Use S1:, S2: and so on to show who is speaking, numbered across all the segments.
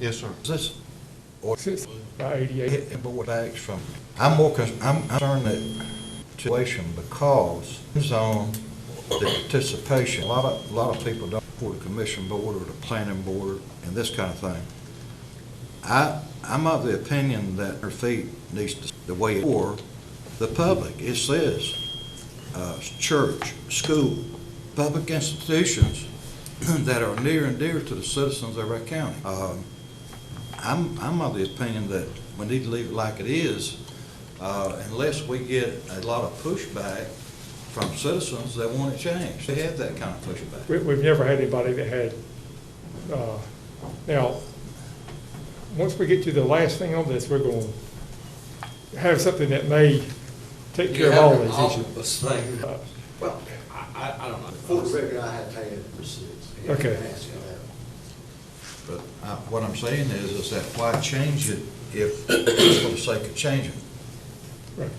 S1: Yes, sir. Is this, or
S2: Since by eighty-eight,
S1: hit, but what acts from, I'm more cons, I'm concerned that situation because it's on the participation. A lot of, a lot of people don't support the commission board or the planning board and this kind of thing. I, I'm of the opinion that her feet needs to, the way, or the public, it says, uh, church, school, public institutions that are near and dear to the citizens of our county. Um, I'm, I'm of the opinion that we need to leave it like it is, uh, unless we get a lot of pushback from citizens that want it changed. They have that kind of pushback.
S2: we, we've never had anybody that had, uh, now, once we get to the last thing on this, we're gonna have something that may take care of all these issues.
S3: issues.
S2: Uh,
S3: Well, I, I, I don't know.
S4: For the record, I had paid it for six.
S2: Okay.
S1: But uh, what I'm saying is, is that why change it if, just for the sake of changing?
S2: right.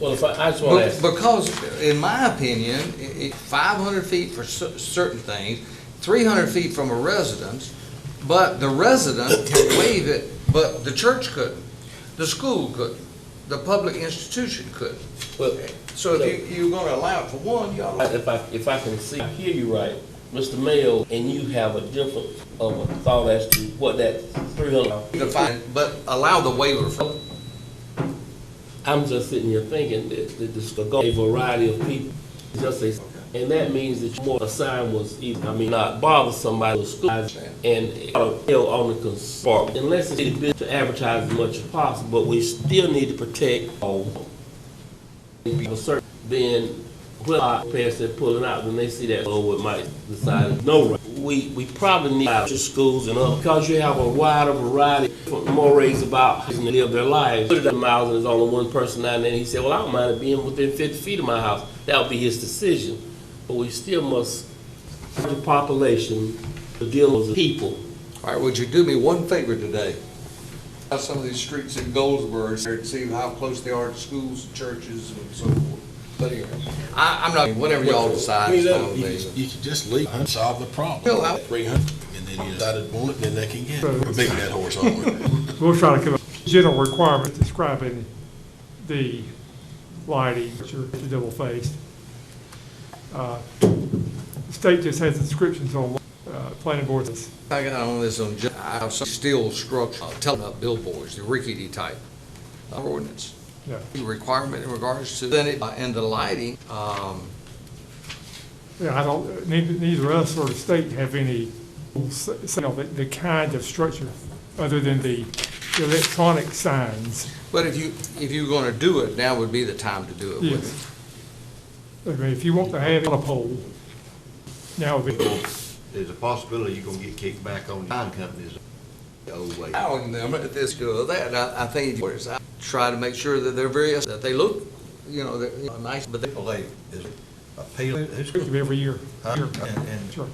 S5: Well, if I, I just want to
S3: Be-
S5: ask,
S3: Because, in my opinion, i- i- 500 feet for cer- certain things, 300 feet from a residence, but the resident can waive it, but the church couldn't, the school couldn't, the public institution couldn't.
S5: well,
S3: So if you, you're gonna allow it for one, you ought to.
S5: if I, if I can see, I hear you right, Mr. Mayo, and you have a difference of a thought as to what that three hundred.
S3: define, but allow the waiver for.
S5: I'm just sitting here thinking that, that this could go a variety of people, just a, and that means that more assigned was either, I mean, not bother somebody with school and uh, hell on the cons- part, unless it's been to advertise as much as possible, but we still need to protect all. If you assert, Then, when our parents are pulling out, when they see that, oh, it might decide, no, right. we, we probably need our schools and up, because you have a wider variety of mores about how they live their lives. Put it at miles and there's only one person down there, and he said, well, I don't mind it being within fifty feet of my house, that would be his decision. But we still must, the population, the deal with the people,
S3: All right, would you do me one favor today? Have some of these streets in Goldsboro, and see how close they are to schools, churches, and so forth. But anyway, I, I'm not, whatever y'all decide. it's fine with
S6: You
S3: me.
S6: could- You could just leave and solve the
S3: Bill,
S6: problem.
S3: I-
S6: Three hundred, and then you decided one, then they can get,
S2: Right.
S6: we're beating that horse on.
S2: We'll try to come up with general requirement describing the lighting, which are double faced. Uh, the State just has inscriptions on, uh, planning boards.
S3: I got on this on, ju- I have some steel structure, uh, telling up billboards, the rickety type uh, ordinance.
S2: Yeah.
S3: The Requirement in regards to, then it, uh, and the lighting, um,
S2: Yeah, I don't, neither, neither us or the state have any, s- s- you know, the, the kind of structure other than the electronic signs.
S3: but if you, if you're gonna do it, now would be the time to do it with it.
S2: Yes. I mean, if you want to have it on a pole, now would be.
S1: There's a possibility you're gonna get kicked back on time companies the old way.
S3: I don't know about this or that, I, I think it's, I try to make sure that they're very, that they look, you know, they're you know, nice, but they,
S1: People, they, is appealing, who's,
S2: restrictive every year.
S1: Huh?
S2: Sure.
S1: And- and-
S2: Sure.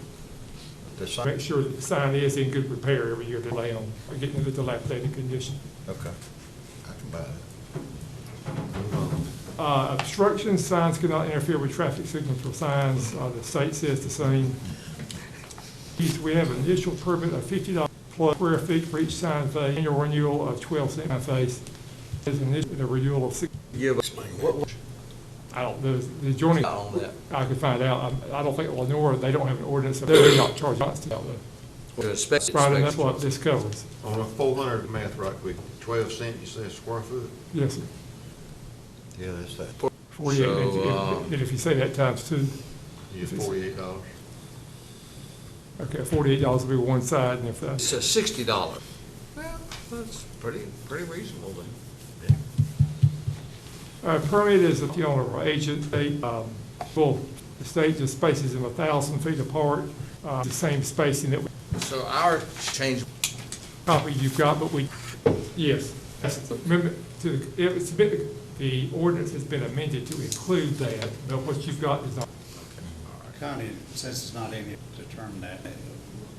S1: the
S2: Make
S1: sign,
S2: sure that the sign is in good repair every year, to lay on, or getting into dilapidated condition.
S1: okay. I can buy that.
S2: Uh, obstruction signs cannot interfere with traffic signals or signs, uh, the state says the same. These- We have an initial permit of fifty dollars plus square feet for each sign face, annual renewal of twelve sign face. There's an issue, the renewal of six,
S3: give us, what, what,
S2: I don't, know the adjoining,
S3: not on that,
S2: I could find out, I, I don't think Lenora, they don't have an ordinance, so they're not charged, that's,
S3: to inspect,
S2: probably that's
S3: inspect.
S2: what this covers.
S7: On a four hundred math right quick, twelve cent, you say square foot?
S2: Yes, sir.
S1: Yeah, that's that.
S2: Forty-eight, and if-
S3: So, um,
S2: if- and if you say that times two,
S7: You forty-eight dollars.
S2: okay, forty-eight dollars will be one side, and if uh,
S3: It's
S2: that's,
S3: a sixty dollar. Well, that's pretty, pretty reasonable then.
S2: uh, permit is if you own an agent, they, um, well, the state just spaces them a thousand feet apart, uh, the same spacing that we,
S3: So our change,
S2: copy you've got, but we, yes. That's- Remember, to, if it's been, the ordinance has been amended to include that, but what you've got is not
S8: County, since it's not in here, determine that.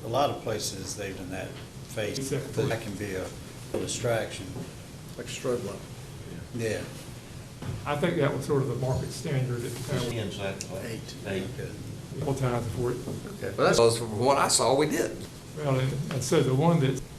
S8: A lot of places, they've done that phase, that can be a distraction.
S4: Like a strobe light.
S8: Yeah.
S2: I think that was sort of the market standard at the time,
S1: Inside the lane.
S2: all times before it
S3: well, that's, from what I saw, we did.
S2: Well, and and so the one that's